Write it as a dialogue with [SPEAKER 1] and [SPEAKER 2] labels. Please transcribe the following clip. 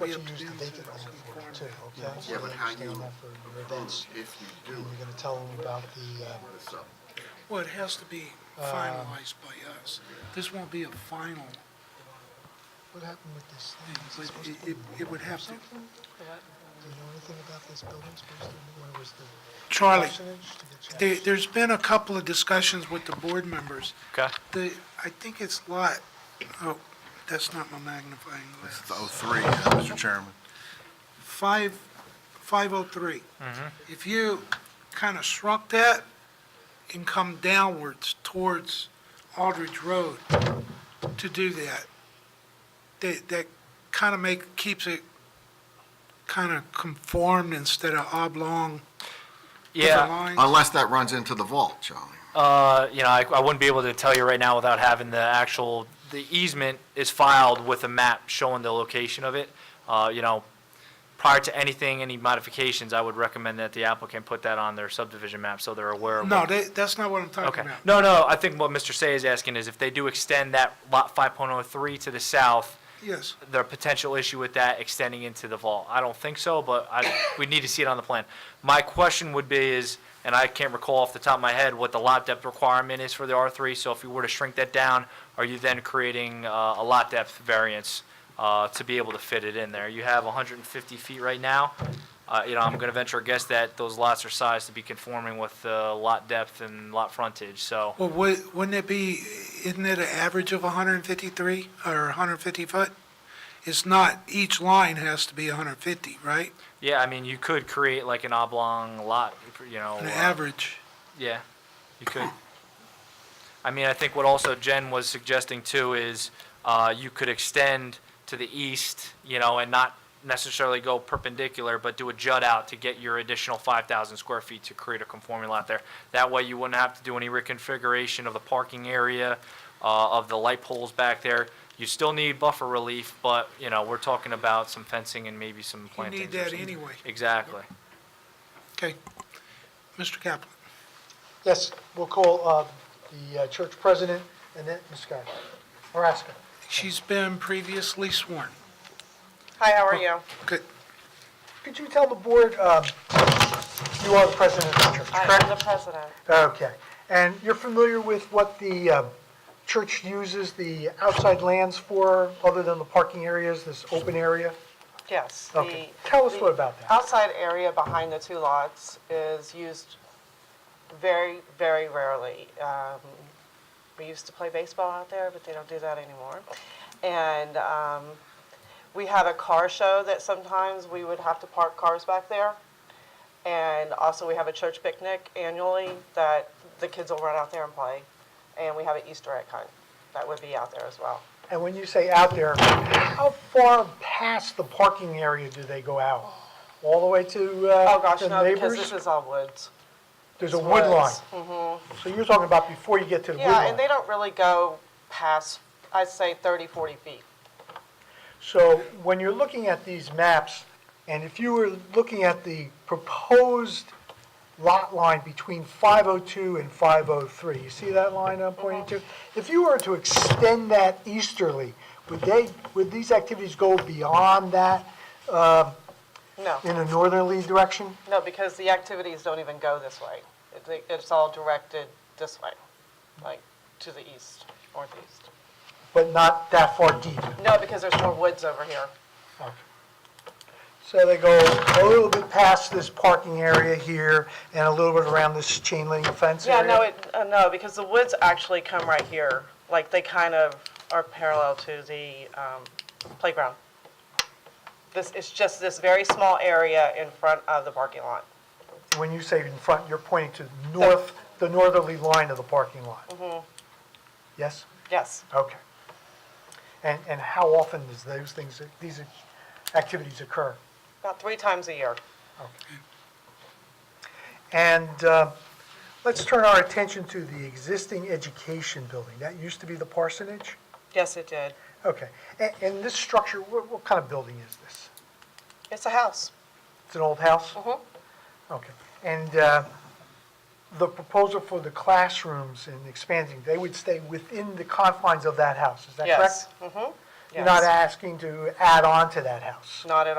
[SPEAKER 1] But you do things too, okay?
[SPEAKER 2] Yeah, but how you,
[SPEAKER 1] Stand up for your events.
[SPEAKER 2] vote if you do
[SPEAKER 1] And you're gonna tell them about the, uh,
[SPEAKER 2] this up.
[SPEAKER 3] Well, it has to be finalized
[SPEAKER 1] Um,
[SPEAKER 3] by us. This won't be a final
[SPEAKER 1] what happened with this
[SPEAKER 3] thing,
[SPEAKER 1] thing? Is
[SPEAKER 3] but
[SPEAKER 1] supposed
[SPEAKER 3] it-
[SPEAKER 1] to
[SPEAKER 3] it,
[SPEAKER 1] be
[SPEAKER 3] it would have to,
[SPEAKER 1] Do you know anything about this building supposed to be, when it was the
[SPEAKER 3] Charlie,
[SPEAKER 1] percentage to get
[SPEAKER 3] there, there's been a couple of discussions with the board members.
[SPEAKER 4] Okay.
[SPEAKER 3] The, I think it's lot, oh, that's not my magnifying glass.
[SPEAKER 5] It's 03, uh, Mr. Chairman.
[SPEAKER 3] Five, five oh three.
[SPEAKER 4] Mm-hmm.
[SPEAKER 3] If you kind of shrunk that and come downwards towards Aldridge Road to do that, that, that kind of make, keeps it kind of conformed instead of oblong. to the
[SPEAKER 4] Yeah,
[SPEAKER 3] lines.
[SPEAKER 2] Unless that runs into the vault, Charlie.
[SPEAKER 4] uh, you know, I, I wouldn't be able to tell you right now without having the actual, the easement is filed with a map showing the location of it. Uh, you know, prior to anything, any modifications, I would recommend that the applicant put that on their subdivision map so they're aware of.
[SPEAKER 3] No,
[SPEAKER 4] what-
[SPEAKER 3] that, that's not what I'm talking
[SPEAKER 4] Okay.
[SPEAKER 3] about.
[SPEAKER 4] No, no, I think what Mr. Say is asking is if they do extend that lot five point oh three to the south,
[SPEAKER 3] Yes,
[SPEAKER 4] the potential issue with that extending into the vault. I don't think so, but I, we need to see it on the plan. My question would be is, and I can't recall off the top of my head what the lot depth requirement is for the R3, so if you were to shrink that down, are you then creating uh, a lot depth variance uh, to be able to fit it in there? You have 150 feet right now. Uh, You know, I'm going to venture a guess that those lots are sized to be conforming with the lot depth and lot frontage, so.
[SPEAKER 3] well, wou- wouldn't it be, isn't it an average of 153 or 150 foot? It's not, each line has to be 150, right?
[SPEAKER 4] Yeah, I mean, you could create like an oblong lot, you know.
[SPEAKER 3] An
[SPEAKER 4] uh,
[SPEAKER 3] average.
[SPEAKER 4] Yeah, you could. I mean, I think what also Jen was suggesting too is, uh, you could extend to the east, you know, and not necessarily go perpendicular, but do a jut out to get your additional five thousand square feet to create a conforming lot there. That way you wouldn't have to do any reconfiguration of the parking area, uh, of the light poles back there. You still need buffer relief, but, you know, we're talking about some fencing and maybe some
[SPEAKER 3] You
[SPEAKER 4] plantings.
[SPEAKER 3] need
[SPEAKER 4] or
[SPEAKER 3] that
[SPEAKER 4] something.
[SPEAKER 3] anyway.
[SPEAKER 4] Exactly.
[SPEAKER 3] Okay. Mr. Kaplan?
[SPEAKER 1] Yes, we'll call, uh, the uh, church president and then, Ms. Scott, or ask her.
[SPEAKER 3] She's been previously sworn.
[SPEAKER 6] Hi, how are you?
[SPEAKER 3] Good.
[SPEAKER 1] Could you tell the board, um, you are the president of the church,
[SPEAKER 6] I
[SPEAKER 1] correct?
[SPEAKER 6] am the president.
[SPEAKER 1] Okay, and you're familiar with what the uh, church uses the outside lands for, other than the parking areas, this open area?
[SPEAKER 6] Yes. the-
[SPEAKER 1] Okay. Tell us
[SPEAKER 6] the
[SPEAKER 1] what about that.
[SPEAKER 6] Outside area behind the two lots is used very, very rarely. Um, We used to play baseball out there, but they don't do that anymore. And um, we had a car show that sometimes we would have to park cars back there. And also, we have a church picnic annually that the kids will run out there and play. And we have an Easter egg hunt that would be out there as well.
[SPEAKER 1] And when you say out there, how far past the parking area do they go out? All the way to uh,
[SPEAKER 6] Oh, gosh,
[SPEAKER 1] the
[SPEAKER 6] no, because this
[SPEAKER 1] neighbors?
[SPEAKER 6] is all woods.
[SPEAKER 1] There's a wood line.
[SPEAKER 6] woods.
[SPEAKER 1] So you're talking about before you get to the wood
[SPEAKER 6] Yeah, and they
[SPEAKER 1] line.
[SPEAKER 6] don't really go past, I'd say 30, 40 feet.
[SPEAKER 1] So when you're looking at these maps, and if you were looking at the proposed lot line between 502 and 503, you see that line I'm pointing to? If you were to extend that easterly, would they, would these activities go beyond that
[SPEAKER 6] No,
[SPEAKER 1] in a northerly direction?
[SPEAKER 6] no, because the activities don't even go this way. It- It's all directed this way, like to the east, northeast.
[SPEAKER 1] but not that far deep.
[SPEAKER 6] No, because there's more woods over here.
[SPEAKER 1] So they go a little bit past this parking area here and a little bit around this chain link fence
[SPEAKER 6] Yeah,
[SPEAKER 1] area?
[SPEAKER 6] no, it, uh, no, because the woods actually come right here. Like they kind of are parallel to the um, playground. This, it's just this very small area in front of the parking lot.
[SPEAKER 1] When you say in front, you're pointing to north, the northerly line of the parking lot? Yes?
[SPEAKER 6] Yes.
[SPEAKER 1] Okay. And, and how often does those things, these activities occur?
[SPEAKER 6] About three times a year.
[SPEAKER 1] And uh, let's turn our attention to the existing education building. That used to be the parsonage?
[SPEAKER 6] Yes, it did.
[SPEAKER 1] Okay. And, and this structure, what, what kind of building is this?
[SPEAKER 6] It's a house.
[SPEAKER 1] It's an old house?
[SPEAKER 6] Mm-hmm.
[SPEAKER 1] Okay. And uh, the proposal for the classrooms and expanding, they would stay within the confines of that house, is that correct?
[SPEAKER 6] Yes. Mhm.
[SPEAKER 1] You're not
[SPEAKER 6] Yes.
[SPEAKER 1] asking to add on to that house.
[SPEAKER 6] Not at all.